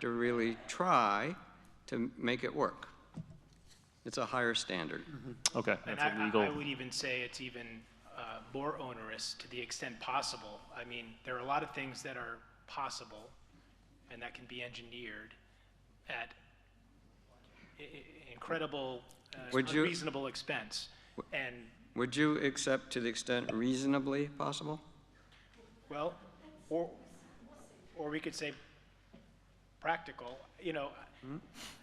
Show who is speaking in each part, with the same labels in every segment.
Speaker 1: to really try to make it work. It's a higher standard.
Speaker 2: Mm-hmm.
Speaker 3: Okay,
Speaker 2: And
Speaker 3: that's
Speaker 2: I,
Speaker 3: a
Speaker 2: I-
Speaker 3: legal.
Speaker 2: I would even say it's even uh, more onerous to the extent possible. I mean, there are a lot of things that are possible and that can be engineered at i- i- incredible, uh,
Speaker 1: Would you-
Speaker 2: unreasonable expense. And,
Speaker 1: Would you accept to the extent reasonably possible?
Speaker 2: well, or, or we could say practical, you know,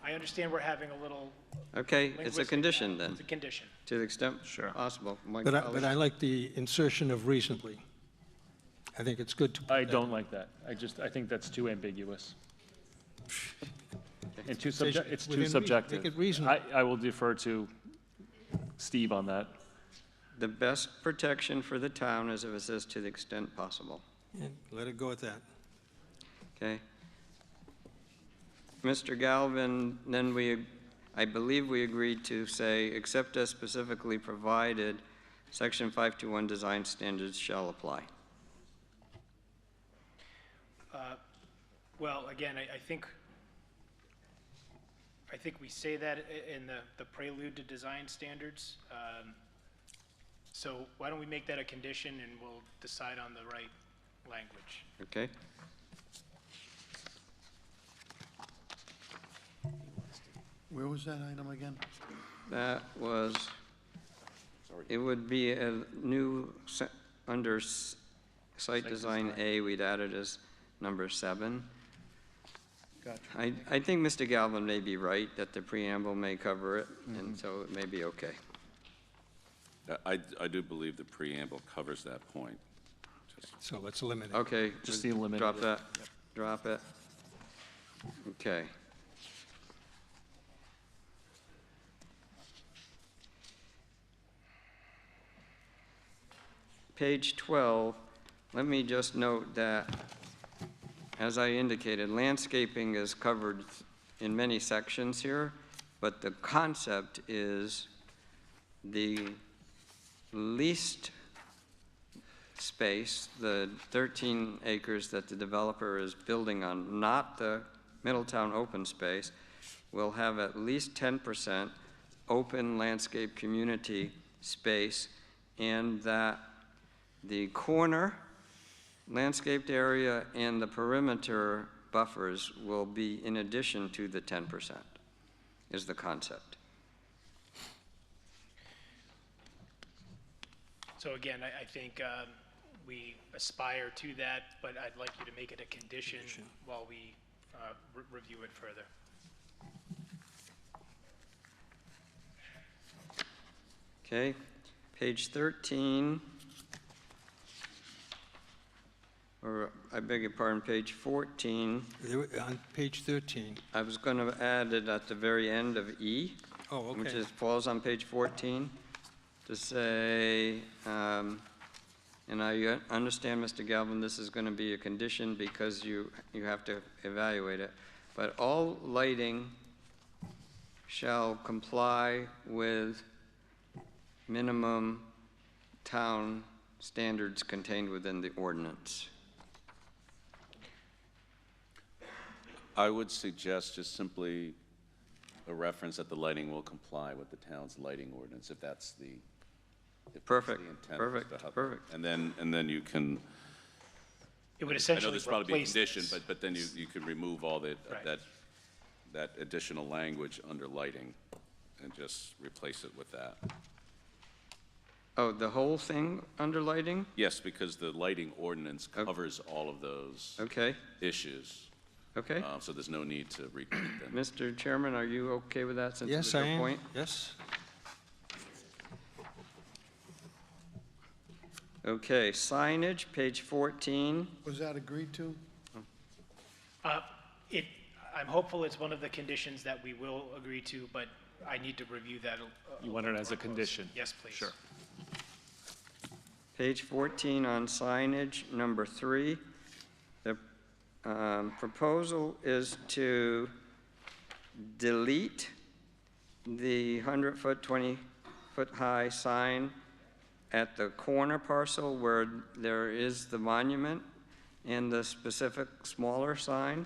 Speaker 2: I understand we're having a little
Speaker 1: Okay, Hmm? it's a
Speaker 2: linguistic
Speaker 1: condition
Speaker 2: battle.
Speaker 1: then,
Speaker 2: It's a condition.
Speaker 1: to the extent
Speaker 3: Sure.
Speaker 1: possible. My
Speaker 4: But I,
Speaker 1: colleague-
Speaker 4: but I like the insertion of recently. I think it's good to. put
Speaker 3: I
Speaker 4: that-
Speaker 3: don't like that. I just, I think that's too ambiguous. And too subject, it's
Speaker 4: Within
Speaker 3: too
Speaker 4: reason.
Speaker 3: subjective.
Speaker 4: Make it reasonable.
Speaker 3: I, I will defer to Steve on that.
Speaker 1: The best protection for the town is if it says to the extent possible,
Speaker 4: and Let it go at that.
Speaker 1: okay? Mr. Galvin, then we, I believe we agreed to say, except as specifically provided, section 521 design standards shall apply.
Speaker 2: Uh, Well, again, I, I think, I think we say that i- in the, the prelude to design standards. Um, So why don't we make that a condition and we'll decide on the right language?
Speaker 1: Okay?
Speaker 5: Where was that item again?
Speaker 1: That was, it would be a new, se- under s- site design A, we'd add it as number seven.
Speaker 5: Gotcha.
Speaker 1: I, I think Mr. Galvin may be right, that the preamble may cover it, and so it may be okay.
Speaker 6: I, I do believe the preamble covers that point.
Speaker 4: So let's eliminate. it.
Speaker 1: Okay.
Speaker 3: Just
Speaker 1: we
Speaker 3: eliminate
Speaker 1: Drop
Speaker 3: it.
Speaker 1: that, drop it. Okay. Page 12, let me just note that, as I indicated, landscaping is covered in many sections here, but the concept is the least space, the 13 acres that the developer is building on, not the Middletown open space, will have at least 10% open landscape community space, and that the corner landscaped area and the perimeter buffers will be in addition to the 10%, is the concept.
Speaker 2: So again, I, I think um, we aspire to that, but I'd like you to make it a condition while we uh, re- review it further.
Speaker 1: Okay, page 13. Or, I beg your pardon, page 14.
Speaker 4: There were- On page 13.
Speaker 1: I was going to add it at the very end of E,
Speaker 4: Oh, okay.
Speaker 1: which is, falls on page 14, to say, um, and I uh, understand, Mr. Galvin, this is going to be a condition because you, you have to evaluate it, but all lighting shall comply with minimum town standards contained within the ordinance.
Speaker 6: I would suggest just simply a reference that the lighting will comply with the town's lighting ordinance, if that's the, if that's
Speaker 1: Perfect,
Speaker 6: the intent as
Speaker 1: perfect,
Speaker 6: to how-
Speaker 1: perfect.
Speaker 6: And then, and then you can,
Speaker 2: It would
Speaker 6: I know
Speaker 2: essentially
Speaker 6: there's probably a
Speaker 2: replace
Speaker 6: condition,
Speaker 2: this.
Speaker 6: but, but then you, you could remove all that,
Speaker 2: Right.
Speaker 6: that, that additional language under lighting and just replace it with that.
Speaker 1: Oh, the whole thing under lighting?
Speaker 6: Yes, because the lighting ordinance
Speaker 1: Oh.
Speaker 6: covers all of those
Speaker 1: Okay,
Speaker 6: issues,
Speaker 1: okay.
Speaker 4: Uh.
Speaker 6: um, so there's no need to repeat them.
Speaker 1: Mr. Chairman, are you okay with that since it was
Speaker 4: Yes, I
Speaker 1: your
Speaker 4: am.
Speaker 1: point?
Speaker 4: Yes.
Speaker 1: Okay, signage, page 14.
Speaker 5: Was that agreed to?
Speaker 2: Uh, It, I'm hopeful it's one of the conditions that we will agree to, but I need to review that. a-
Speaker 3: You want it as a condition?
Speaker 2: Yes, please.
Speaker 3: Sure.
Speaker 1: Page 14 on signage, number three. The um, proposal is to delete the 100-foot, 20-foot-high sign at the corner parcel where there is the monument and the specific smaller sign.